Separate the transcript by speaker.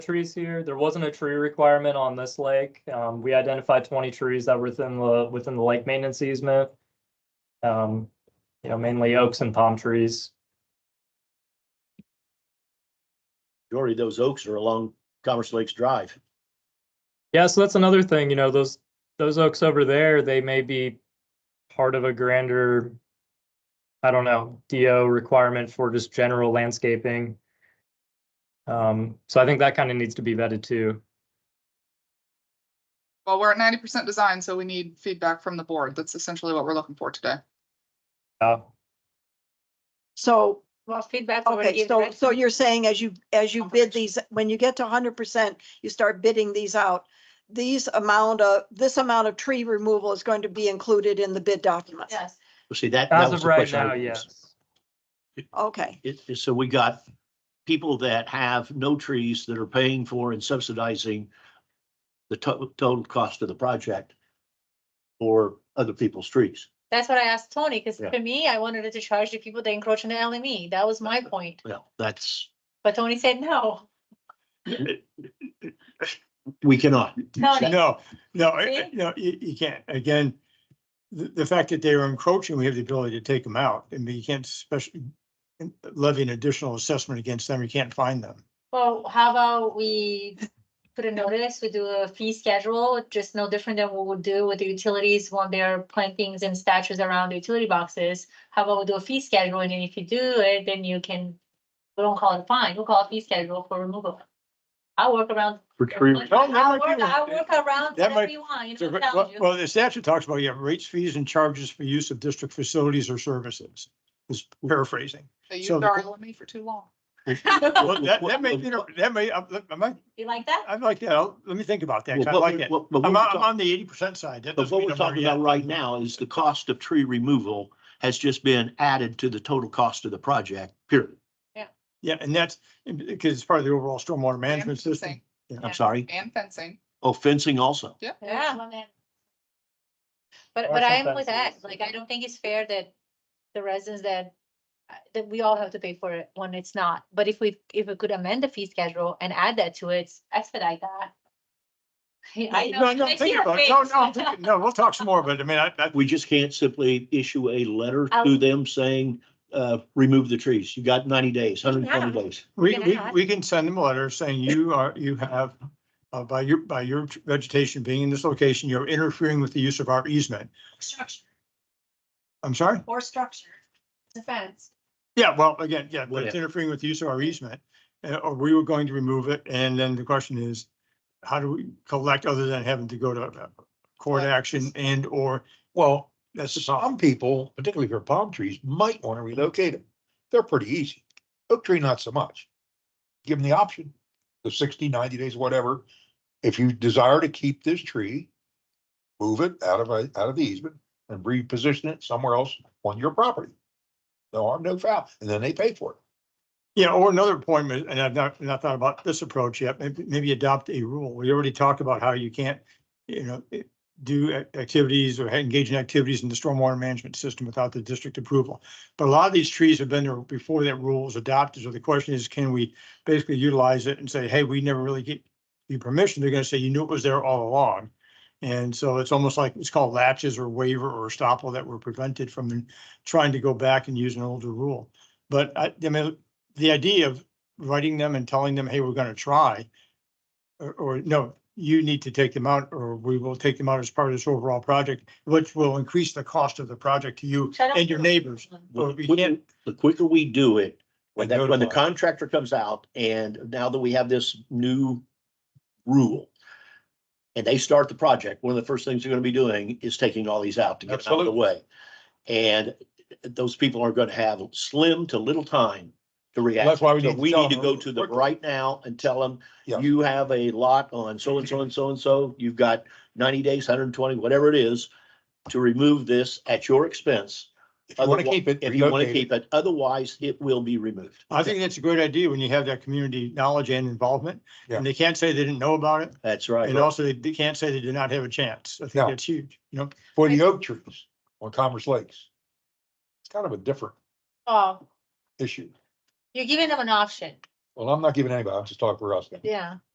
Speaker 1: trees here. There wasn't a tree requirement on this lake. Um, we identified twenty trees that were within the, within the lake maintenance easement. Um, you know, mainly oaks and palm trees.
Speaker 2: Jordy, those oaks are along Commerce Lakes Drive.
Speaker 1: Yeah, so that's another thing, you know, those, those oaks over there, they may be part of a grander, I don't know, DO requirement for just general landscaping. Um, so I think that kind of needs to be vetted too.
Speaker 3: Well, we're at ninety percent design, so we need feedback from the board. That's essentially what we're looking for today.
Speaker 1: Uh,
Speaker 4: So,
Speaker 5: Well, feedback. already
Speaker 4: okay,
Speaker 5: given,
Speaker 4: so,
Speaker 5: right?
Speaker 4: so you're saying as you, as you bid these, when you get to hundred percent, you start bidding these out. These amount of, this amount of tree removal is going to be included in the bid documents.
Speaker 5: Yes.
Speaker 2: Well, see, that, that
Speaker 1: as of
Speaker 2: was the
Speaker 1: right
Speaker 2: question.
Speaker 1: now,
Speaker 2: I was-
Speaker 1: yes.
Speaker 4: Okay,
Speaker 2: It, it- so we got people that have no trees that are paying for and subsidizing the to- total cost of the project or other people's trees.
Speaker 5: That's what I asked Tony, because
Speaker 2: Yeah.
Speaker 5: for me, I wanted it to charge the people that encroach on the LME. That was my point.
Speaker 2: Well, that's,
Speaker 5: But Tony said no.
Speaker 2: we cannot.
Speaker 5: Tony,
Speaker 6: No, no, I- I-
Speaker 5: See?
Speaker 6: no, you, you can't. Again, the, the fact that they are encroaching, we have the ability to take them out. I mean, you can't especially levy an additional assessment against them. You can't find them.
Speaker 5: well, how about we put a notice, we do a fee schedule, just no different than what we would do with the utilities when they're plantings and statues around the utility boxes. How about we do a fee schedule and then if you do it, then you can, we don't call it a fine, we'll call it fee schedule for removal. I'll work around.
Speaker 2: For tree,
Speaker 6: No, no,
Speaker 5: I'll
Speaker 6: I
Speaker 5: work,
Speaker 6: do.
Speaker 5: I'll work around
Speaker 6: That
Speaker 5: whatever
Speaker 6: might-
Speaker 5: you want, you know, what I'm telling you.
Speaker 6: Well, the statute talks about you have rates, fees and charges for use of district facilities or services. Is paraphrasing.
Speaker 3: They used
Speaker 6: So the-
Speaker 3: our LME for too long.
Speaker 6: Well, that, that may, you know, that may, I'm, I'm,
Speaker 5: You like that?
Speaker 6: I'm like, that. I'll- let me think about that. 'cause I
Speaker 2: Well,
Speaker 6: like
Speaker 2: what-
Speaker 6: it.
Speaker 2: what- but what
Speaker 6: I'm,
Speaker 2: we're
Speaker 6: on- I'm
Speaker 2: talking-
Speaker 6: on the eighty percent side. That
Speaker 2: But
Speaker 6: doesn't
Speaker 2: what
Speaker 6: mean
Speaker 2: we're
Speaker 6: I'm there
Speaker 2: talking about
Speaker 6: yet.
Speaker 2: right now is the cost of tree removal has just been added to the total cost of the project, period.
Speaker 6: Yeah, and that's because it's part of the overall stormwater
Speaker 3: And
Speaker 6: management system.
Speaker 3: fencing,
Speaker 5: Yeah.
Speaker 2: I'm sorry.
Speaker 3: And fencing.
Speaker 2: Oh, fencing also.
Speaker 5: Yeah. But,
Speaker 1: Or
Speaker 5: but I am
Speaker 1: sometimes
Speaker 5: with that,
Speaker 1: it's-
Speaker 5: like, I don't think it's fair that the residents that, uh, that we all have to pay for it when it's not. But if we, if we could amend the fee schedule and add that to it, expedite that. I know,
Speaker 6: No, no,
Speaker 5: I see
Speaker 6: think
Speaker 5: your
Speaker 6: about, it. no,
Speaker 5: face.
Speaker 6: no, I'm thinking- no, we'll talk some more, but I mean, I, I,
Speaker 2: We just can't simply issue a letter to
Speaker 5: I'll-
Speaker 2: them saying, uh, remove the trees. You got ninety days, hundred and twenty
Speaker 5: Yeah.
Speaker 2: days.
Speaker 6: we,
Speaker 5: Can I
Speaker 6: we,
Speaker 5: add?
Speaker 6: we can send them a letter saying you are, you have, uh, by your, by your vegetation being in this location, you're interfering with the use of our easement.
Speaker 5: Structure
Speaker 6: I'm sorry?
Speaker 5: or structure, it's a fence.
Speaker 6: Yeah, well, again, yeah, but it's
Speaker 2: Whatever.
Speaker 6: interfering with the use of our easement, uh, or we were going to remove it, and then the question is, how do we collect other than having to go to uh, court action and or,
Speaker 7: Well,
Speaker 6: that's the problem.
Speaker 7: some people, particularly for palm trees, might want to relocate them. They're pretty easy. Oak tree, not so much. Give them the option, the 60, 90 days, whatever. If you desire to keep this tree, move it out of, a- out of the easement and reposition it somewhere else on your property. No harm, no foul. And then they pay for it.
Speaker 6: Yeah, or another point, is- and I've not, not thought about this approach yet, maybe, maybe adopt a rule. We already talked about how you can't, you know, eh, do ac- activities or engage in activities in the stormwater management system without the district approval. But a lot of these trees have been there before that rule was adopted. So the question is, can we basically utilize it and say, hey, we never really get you permission? They're gonna say, you knew it was there all along. And so it's almost like, it's called latches or waiver or estoppel that were prevented from trying to go back and use an older rule. But I, I mean, the idea of writing them and telling them, hey, we're gonna try. Or, or no, you need to take them out, or we will take them out as part of this overall project, which will increase the cost of the project to you
Speaker 5: Which I don't
Speaker 6: and your
Speaker 5: feel-
Speaker 6: neighbors. Well, we can't-
Speaker 2: The quicker we do it, when
Speaker 6: And
Speaker 2: that, when the
Speaker 6: notify.
Speaker 2: contractor comes out and now that we have this new rule and they start the project, one of the first things they're gonna be doing is taking all these out to get out of the
Speaker 7: Absolutely.
Speaker 2: way. And those people are gonna have slim to little time to react.
Speaker 7: That's why we
Speaker 2: So
Speaker 7: need to
Speaker 2: we
Speaker 7: tell
Speaker 2: need to
Speaker 7: them
Speaker 2: go to them
Speaker 7: quickly.
Speaker 2: right now and tell them,
Speaker 7: Yeah.
Speaker 2: you have a lot on so and so and so and so, you've got ninety days, hundred and twenty, whatever it is, to remove this at your expense.
Speaker 7: If you want to
Speaker 2: Otherwi-
Speaker 7: keep it.
Speaker 2: If you want to
Speaker 7: relocate it.
Speaker 2: keep it, otherwise it will be removed.
Speaker 6: I think that's a great idea when you have that community knowledge and involvement.
Speaker 7: Yeah.
Speaker 6: And they can't say they didn't know about it.
Speaker 2: That's right.
Speaker 6: And also they- they can't say they did not have a chance. I think
Speaker 7: No.
Speaker 6: that's huge, you know?
Speaker 7: For the oak trees on Commerce Lakes. It's kind of a different
Speaker 5: Oh,
Speaker 7: issue.
Speaker 5: you're giving them an option,
Speaker 7: Well, I'm not giving anybody, I'm just talking for us. now.
Speaker 5: yeah.